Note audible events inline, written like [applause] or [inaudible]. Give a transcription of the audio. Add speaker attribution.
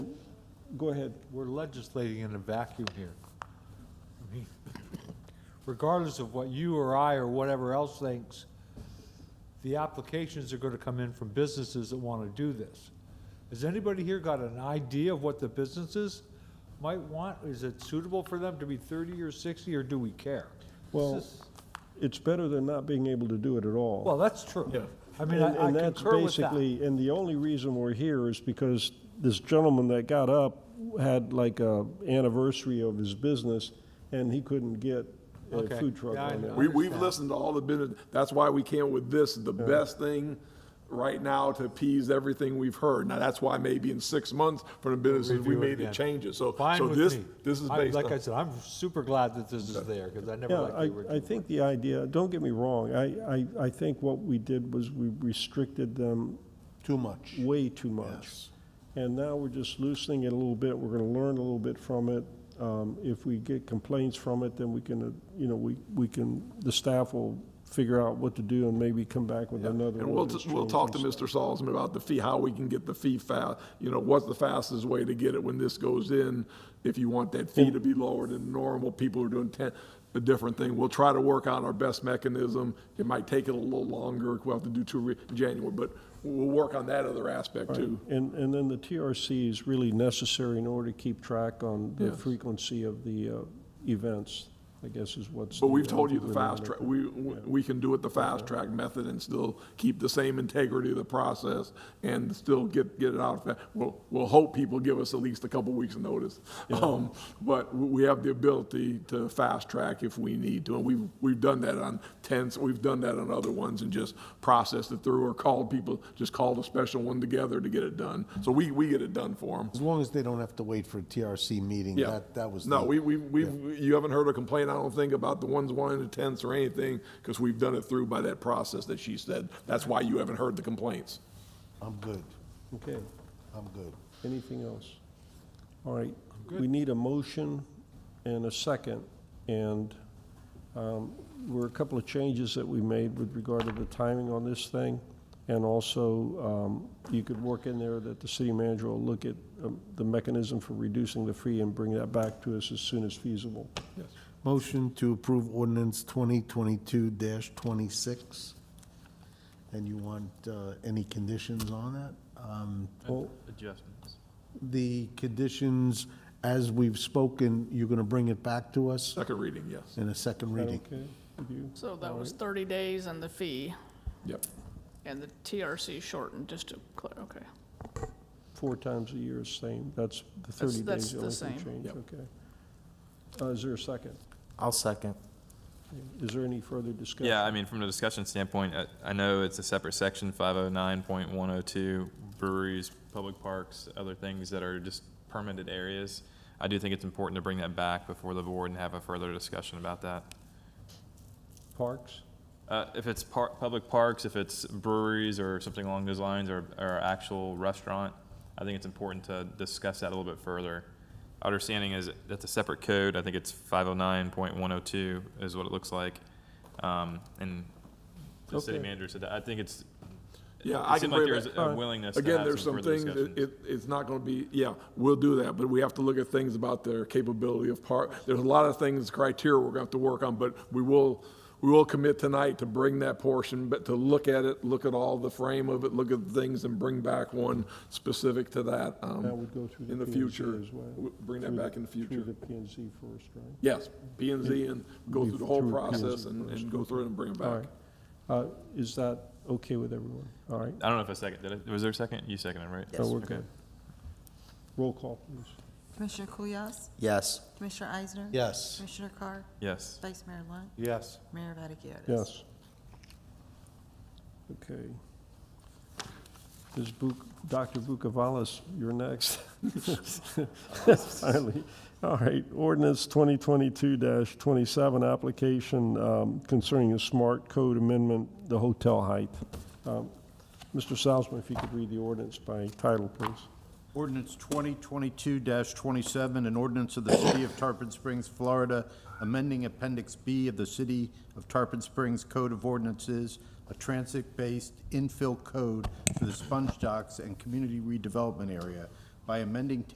Speaker 1: go ahead, we're legislating in a vacuum here. I mean, Regardless of what you or I or whatever else thinks, the applications are gonna come in from businesses that wanna do this. Has anybody here got an idea of what the businesses might want? Is it suitable for them to be thirty or sixty, or do we care? This
Speaker 2: Well,
Speaker 1: is-
Speaker 2: it's better than not being able to do it at all.
Speaker 1: Well, that's true.
Speaker 3: Yeah.
Speaker 1: I mean, I I
Speaker 2: And- and that's
Speaker 1: concur with that.
Speaker 2: basically- And the only reason we're here is because this gentleman that got up had like a anniversary of his business, and he couldn't get a
Speaker 1: Okay.
Speaker 2: food truck
Speaker 1: Yeah, I
Speaker 2: on
Speaker 1: know.
Speaker 2: that.
Speaker 3: We, we've listened to all the business, that's why we came with this, the best thing right now to appease everything we've heard. Now, that's why maybe in six months from the businesses, we
Speaker 1: Review it
Speaker 3: made the
Speaker 1: again.
Speaker 3: changes, so,
Speaker 1: Fine
Speaker 3: so
Speaker 1: with
Speaker 3: this,
Speaker 1: me.
Speaker 3: this is
Speaker 1: I-
Speaker 3: based
Speaker 1: Like I
Speaker 3: on.
Speaker 1: said, I'm super glad that this is there, because I never
Speaker 2: Yeah,
Speaker 1: liked the
Speaker 2: I, I
Speaker 1: original.
Speaker 2: think the idea, don't get me wrong, I, I, I think what we did was we restricted them
Speaker 4: Too much.
Speaker 2: way too much. And now we're just loosening it a little bit, we're gonna learn a little bit from it. Um, if we get complaints from it, then we can, uh, you know, we, we can, the staff will figure out what to do and maybe come back with another.
Speaker 3: And we'll,
Speaker 2: ordinance
Speaker 3: we'll
Speaker 2: change
Speaker 3: talk to
Speaker 2: and
Speaker 3: Mr. Salzman about the fee, how we can get the fee fa, you know, what's the fastest way to get it when this goes in? If you want that fee to be lower than normal, people are doing ten, a different thing. We'll try to work out our best mechanism. It might take it a little longer, we'll have to do two re- in January, but we'll work on that other aspect too.
Speaker 2: stuff. And, and then the TRC is really necessary in order to keep track on the
Speaker 3: Yes.
Speaker 2: frequency of the, uh, events, I guess is what's.
Speaker 3: But
Speaker 2: the,
Speaker 3: we've
Speaker 2: uh,
Speaker 3: told you the
Speaker 2: denominator.
Speaker 3: fast track, we, we we can do it the fast track method and still keep the same integrity of the process and still get, get it out. fa- We'll, we'll hope people give us at least a couple weeks' notice. Um, But we we have the ability to fast track if we need to, and we've, we've done that on tents, we've done that on other ones and just processed it through or called people, just called a special one together to get it done. So we, we get it done for them.
Speaker 4: As long as they don't have to wait for a TRC meeting,
Speaker 3: Yeah.
Speaker 4: that, that was.
Speaker 3: No,
Speaker 4: the-
Speaker 3: we, we, we, you haven't heard a complaint, I don't think, about the ones wanting the tents or anything, because we've done it through by that process that she said. That's why you haven't heard the complaints.
Speaker 4: I'm good.
Speaker 2: Okay,
Speaker 4: I'm good.
Speaker 2: anything else? All right, we need a motion and a second, and um, were a couple of changes that we made with regard to the timing on this thing, and also, um, you could work in there that the city manager will look at um, the mechanism for reducing the fee and bring that back to us as soon as feasible.
Speaker 4: Motion to approve ordinance twenty twenty-two twenty-six. And you want, uh, any conditions on that? Um,
Speaker 2: Well,
Speaker 5: adjustments.
Speaker 4: the conditions, as we've spoken, you're gonna bring it back to us
Speaker 3: Second reading, yes.
Speaker 4: in a second
Speaker 2: is that
Speaker 4: reading.
Speaker 2: okay with you?
Speaker 6: So that was 30 days and the fee,
Speaker 3: Yep.
Speaker 6: and the TRC shortened, just to, clear. okay.
Speaker 2: Four times a year is same, that's the
Speaker 6: That's-
Speaker 2: 30
Speaker 6: that's
Speaker 2: days.
Speaker 6: the
Speaker 2: only
Speaker 6: same.
Speaker 2: change,
Speaker 3: Yep.
Speaker 2: Okay. Uh, Is there a second?
Speaker 7: I'll second.
Speaker 2: Is there any further discussion?
Speaker 5: Yeah, I mean, from the discussion standpoint, I, I know it's a separate section, five oh nine point one oh two, breweries, public parks, other things that are just permitted areas. I do think it's important to bring that back before the board and have a further discussion about that.
Speaker 2: Parks?
Speaker 5: Uh, if it's par- public parks, if it's breweries or something along those lines, or, or actual restaurant, I think it's important to discuss that a little bit further. Our Understanding is that's a separate code. I think it's five oh nine point one oh two is what it looks like. Um, and the city
Speaker 2: Okay.
Speaker 5: manager said that. I think it's.
Speaker 3: Yeah,
Speaker 5: it
Speaker 3: I can
Speaker 5: seemed like
Speaker 3: bring
Speaker 5: there's
Speaker 3: that-
Speaker 5: a willingness to
Speaker 3: Again,
Speaker 5: have
Speaker 3: there's
Speaker 5: some
Speaker 3: some
Speaker 5: further
Speaker 3: things, that
Speaker 5: discussion.
Speaker 3: it, it's not gonna be, yeah, we'll do that, but we have to look at things about their capability of part. There's a lot of things, criteria we're gonna have to work on, but we will, we will commit tonight to bring that portion, but to look at it, look at all the frame of it, look at the things and bring back one specific to that. um,
Speaker 2: That would go through the
Speaker 3: In the
Speaker 2: P&Z
Speaker 3: future,
Speaker 2: as well.
Speaker 3: W- bring that
Speaker 2: Through
Speaker 3: back in the
Speaker 2: Through the
Speaker 3: future.
Speaker 2: P and Z first, right?
Speaker 3: Yes, P and Z and go through the whole
Speaker 2: Through P and Z
Speaker 3: process and, and go through it and bring it
Speaker 2: All
Speaker 3: back.
Speaker 2: right. Uh, Is that okay with everyone? All right,
Speaker 5: I don't know if I second. Did I, was there a second? You seconded, right?
Speaker 2: so we're good. Roll call, please.
Speaker 8: Commissioner Kulyas,
Speaker 7: Yes.
Speaker 8: Commissioner Eisner?
Speaker 4: Yes.
Speaker 8: Commissioner Carr?
Speaker 5: Yes.
Speaker 8: Vice Mayor Lunt?
Speaker 1: Yes.
Speaker 8: Mayor Vaticius?
Speaker 2: Yes. Okay. Ms. Buc, Dr. Vukovalis, you're next. [laughs] Finally. All right, ordinance 2022-27, application um, concerning a smart code amendment, the hotel height. Um, Mr. Salzman, if you could read the ordinance by title, please.
Speaker 9: Ordinance 2022-27, an ordinance of the City of Tarpon Springs, Florida, amending Appendix B of the City of Tarpon Springs Code of Ordinances, a transit-based infill code for the sponge docks and community redevelopment area by amending